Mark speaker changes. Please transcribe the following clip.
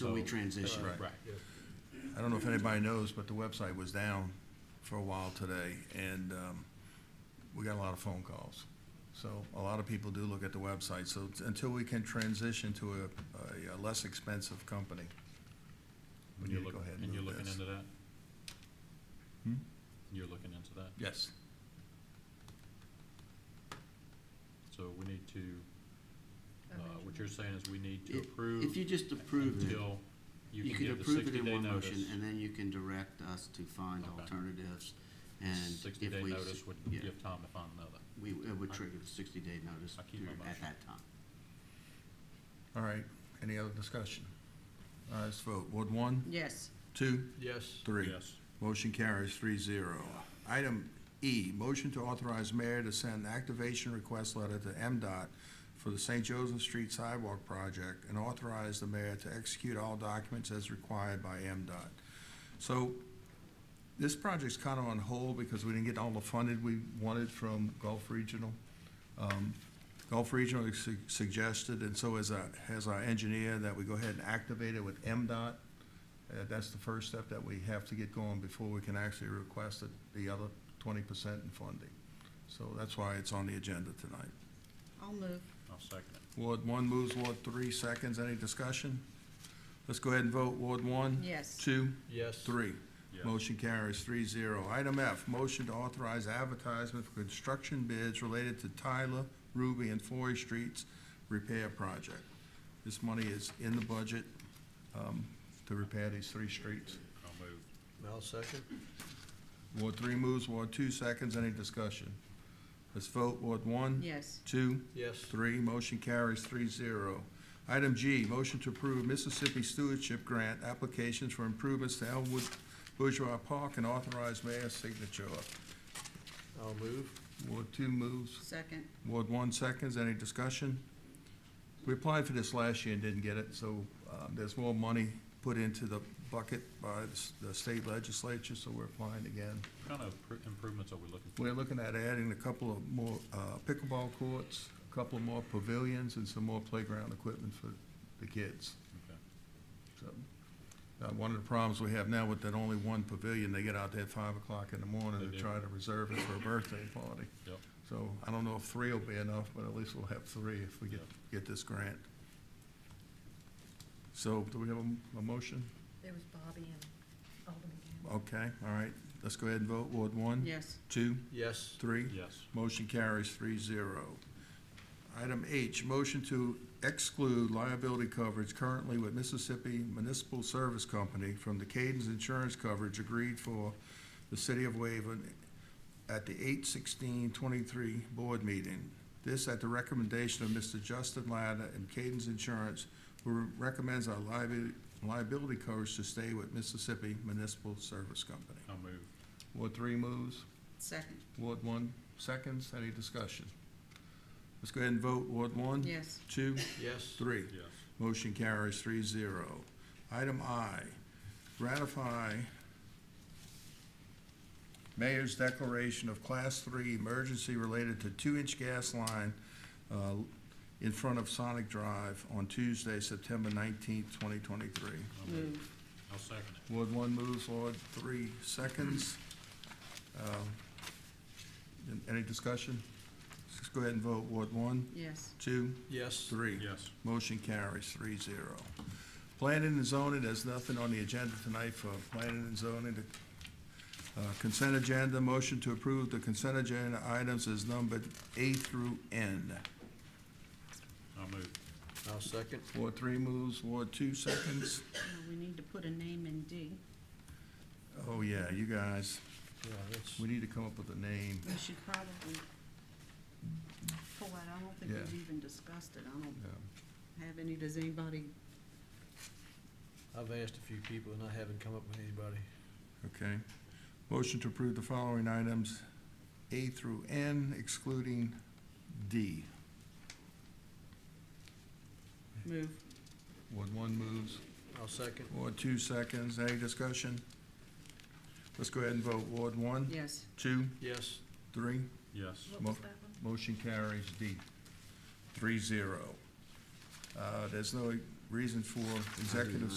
Speaker 1: till we
Speaker 2: So-
Speaker 1: transition.
Speaker 2: Right.
Speaker 3: Right.
Speaker 2: I don't know if anybody knows, but the website was down for a while today, and um, we got a lot of phone calls. So a lot of people do look at the website, so t- until we can transition to a- a, a less expensive company, we
Speaker 3: And you're
Speaker 2: need to go
Speaker 3: look-
Speaker 2: ahead
Speaker 3: And
Speaker 2: and
Speaker 3: you're
Speaker 2: move
Speaker 3: looking
Speaker 2: this.
Speaker 3: into that?
Speaker 2: Hmm?
Speaker 3: You're looking into that?
Speaker 2: Yes,
Speaker 3: So we need to, uh, what you're saying is we need to
Speaker 1: If-
Speaker 3: approve
Speaker 1: If you just approve it,
Speaker 3: until you
Speaker 1: you
Speaker 3: can
Speaker 1: could
Speaker 3: give the
Speaker 1: approve it in
Speaker 3: sixty-day
Speaker 1: one motion,
Speaker 3: notice.
Speaker 1: and then you can direct us to find
Speaker 3: Okay.
Speaker 1: alternatives. And if
Speaker 3: Sixty-day
Speaker 1: we,
Speaker 3: notice would
Speaker 1: yeah.
Speaker 3: give time to find another.
Speaker 1: we, it would trigger the sixty-day notice
Speaker 3: I keep my
Speaker 1: during- at
Speaker 3: motion.
Speaker 1: that time.
Speaker 2: all right, any other discussion? All right, let's vote, Ward one,
Speaker 4: Yes,
Speaker 2: two,
Speaker 5: Yes.
Speaker 2: three.
Speaker 3: Yes.
Speaker 2: Motion carries three zero. Item E, motion to authorize mayor to send activation request letter to MDOT for the St. Joseph Street Sidewalk Project and authorize the mayor to execute all documents as required by MDOT. So this project's kind of on hold because we didn't get all the funding we wanted from Gulf Regional. Um, Gulf Regional su- suggested, and so as our, as our engineer, that we go ahead and activate it with MDOT. Uh, That's the first step that we have to get going before we can actually request it- the other twenty percent in funding. So that's why it's on the agenda tonight.
Speaker 4: I'll move.
Speaker 3: I'll second it.
Speaker 2: Ward one moves, Ward three seconds. Any discussion? Let's go ahead and vote. Ward one?
Speaker 4: Yes.
Speaker 2: Two?
Speaker 5: Yes.
Speaker 2: Three.
Speaker 3: Yes.
Speaker 2: Motion carries three zero. Item F, motion to authorize advertisement for construction bids related to Tyler, Ruby, and Forry Streets repair project. This money is in the budget, um, to repair these three streets.
Speaker 3: I'll move.
Speaker 5: I'll second.
Speaker 2: Ward three moves, Ward two seconds, any discussion? Let's vote, Ward one?
Speaker 4: Yes,
Speaker 2: Two?
Speaker 5: Yes.
Speaker 2: Three, motion carries three zero. Item G, motion to approve Mississippi Stewardship Grant applications for improvements to Elmwood Bourgeois Park and authorize mayor's signature.
Speaker 5: I'll move.
Speaker 2: Ward two moves,
Speaker 4: second.
Speaker 2: Ward one seconds, any discussion? We applied for this last year and didn't get it, so, uh, there's more money put into the bucket by the s- the state legislature, so we're applying again.
Speaker 3: What kind of pr- improvements are we looking for?
Speaker 2: We're looking at adding a couple of more uh, pickleball courts, a couple more pavilions, and some more playground equipment for the kids.
Speaker 3: Okay.
Speaker 2: So, uh, One of the problems we have now with that only one pavilion, they get out there at five o'clock in the
Speaker 3: They
Speaker 2: morning to
Speaker 3: do.
Speaker 2: try to reserve it for a birthday party.
Speaker 3: Yep.
Speaker 2: So I don't know if three will be enough, but at least we'll have three if we get, get this grant. So do we have a, a motion?
Speaker 6: There was Bobby and Alderman Gamble.
Speaker 2: Okay, all right, let's go ahead and vote. Ward one?
Speaker 4: Yes,
Speaker 2: Two?
Speaker 5: Yes.
Speaker 2: Three?
Speaker 3: Yes.
Speaker 2: Motion carries three zero. Item H, motion to exclude liability coverage currently with Mississippi Municipal Service Company from the Cadence Insurance coverage agreed for the city of Waven at the eight sixteen twenty-three board meeting. This at the recommendation of Mr. Justin Latta and Cadence Insurance, who recommends our liability, liability coverage to stay with Mississippi Municipal Service Company.
Speaker 3: I'll move.
Speaker 2: Ward three moves.
Speaker 4: second.
Speaker 2: Ward one, seconds, any discussion? Let's go ahead and vote, Ward one?
Speaker 4: Yes,
Speaker 2: Two,
Speaker 5: Yes.
Speaker 2: three.
Speaker 3: Yes.
Speaker 2: Motion carries three zero. Item I, ratify mayor's declaration of class three emergency related to two-inch gas line uh, in front of Sonic Drive on Tuesday, September nineteenth, twenty twenty-three.
Speaker 3: I'll move.
Speaker 4: move.
Speaker 3: I'll second it.
Speaker 2: Ward one moves, Ward three seconds. Um, an- Any discussion? Let's go ahead and vote. Ward one,
Speaker 4: Yes,
Speaker 2: two,
Speaker 5: Yes.
Speaker 2: three.
Speaker 3: Yes.
Speaker 2: Motion carries three zero. Planning and zoning, there's nothing on the agenda tonight for planning and zoning. The, uh, Consent agenda, motion to approve the consent agenda items is numbered A through N.
Speaker 3: I'll move.
Speaker 5: I'll second.
Speaker 2: Ward three moves, Ward two seconds.
Speaker 4: No, we need to put a name in D.
Speaker 2: Oh, yeah, you guys,
Speaker 5: Yeah, that's,
Speaker 2: we need to come up with a name.
Speaker 4: We should probably pull that. I don't think
Speaker 2: Yeah.
Speaker 4: we've even discussed it. I don't
Speaker 2: Yeah.
Speaker 4: have any. Does anybody?
Speaker 5: I've asked a few people and I haven't come up with anybody.
Speaker 2: Okay. Motion to approve the following items, A through N excluding D.
Speaker 4: Move.
Speaker 2: Ward one moves,
Speaker 5: I'll second.
Speaker 2: Ward two seconds, any discussion? Let's go ahead and vote, Ward one,
Speaker 4: Yes,
Speaker 2: two,
Speaker 5: Yes.
Speaker 2: three,
Speaker 3: Yes.
Speaker 6: What was
Speaker 2: Mo-
Speaker 6: that one?
Speaker 2: motion carries D, three zero. Uh, there's no reason for executive